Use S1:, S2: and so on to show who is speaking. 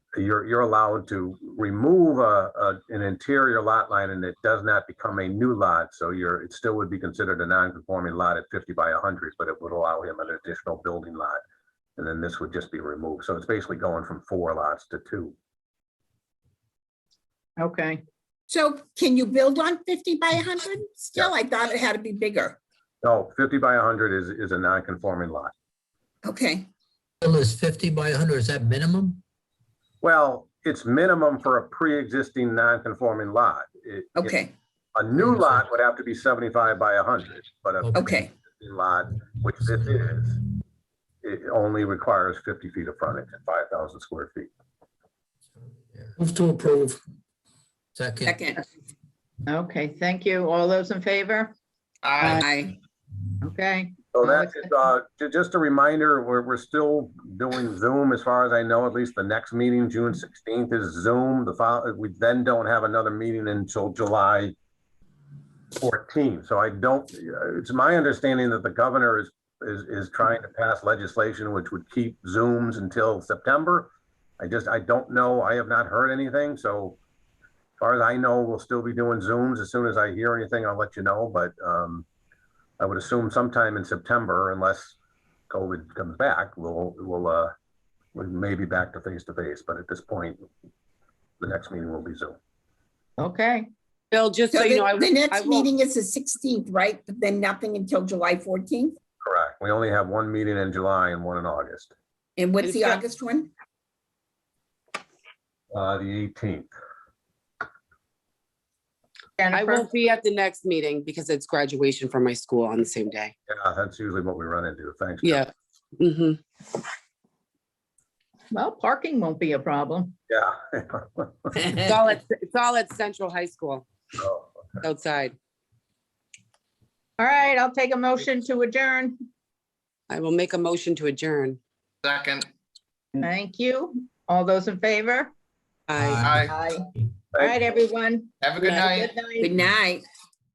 S1: you're, you're allowed to remove a, a, an interior lot line and it does not become a new lot. So you're, it still would be considered a non-conforming lot at fifty by hundred, but it would allow him an additional building lot. And then this would just be removed. So it's basically going from four lots to two.
S2: Okay,
S3: So can you build on fifty by hundred? Still, I thought it had to be bigger.
S1: No, fifty by hundred is, is a non-conforming lot.
S3: Okay,
S4: Bill, is 50 by 100, is that minimum?
S1: Well, it's minimum for a pre-existing non-conforming lot. It- it-
S3: okay,
S1: A new lot would have to be seventy-five by hundred, but a
S3: okay,
S1: existing lot, which this is, it only requires fifty feet of frontage and five thousand square feet.
S5: Move to approve.
S4: Second,
S6: Uh,
S3: second,
S2: okay, thank you. All those in favor?
S6: Aye.
S3: I,
S2: Okay,
S1: So
S2: Oh,
S1: that
S2: okay.
S1: is, uh, ju- just a reminder, we're, we're still doing Zoom as far as I know, at least the next meeting, June sixteenth is Zoom. The file, we then don't have another meeting until July fourteenth. So I don't, uh, it's my understanding that the governor is, is, is trying to pass legislation which would keep Zooms until September. I just, I don't know. I have not heard anything, so as far as I know, we'll still be doing Zooms. As soon as I hear anything, I'll let you know, but, um, I would assume sometime in September, unless COVID comes back, we'll, we'll, uh, we may be back to face to face, but at this point, the next meeting will be Zoom.
S2: okay,
S6: Bill, just
S3: so
S6: so you know, I,
S3: the the
S6: I
S3: next
S6: will,
S3: meeting is the sixteenth, right? But Then nothing until July fourteenth?
S1: Correct. We only have one meeting in July and one in August,
S3: And what's the
S6: It's-
S3: August one?
S1: uh, the eighteenth.
S6: I
S2: Jennifer,
S6: won't be at the next meeting because it's graduation from my school on the same day.
S1: Yeah, that's usually what we run into. Thanks. Jeff.
S6: Yeah. hmm
S2: well, parking won't be a problem.
S1: Yeah.
S6: It's all at, it's all at Central High School
S1: So,
S6: outside.
S2: All right, I'll take a motion to adjourn.
S6: I will make a motion to adjourn.
S5: Second.
S2: Thank you. All those in favor?
S6: Aye.
S2: Aye. All
S5: Aye.
S2: right, everyone.
S5: Have a good
S6: Aye.
S5: night.
S2: Good night.
S3: Good night.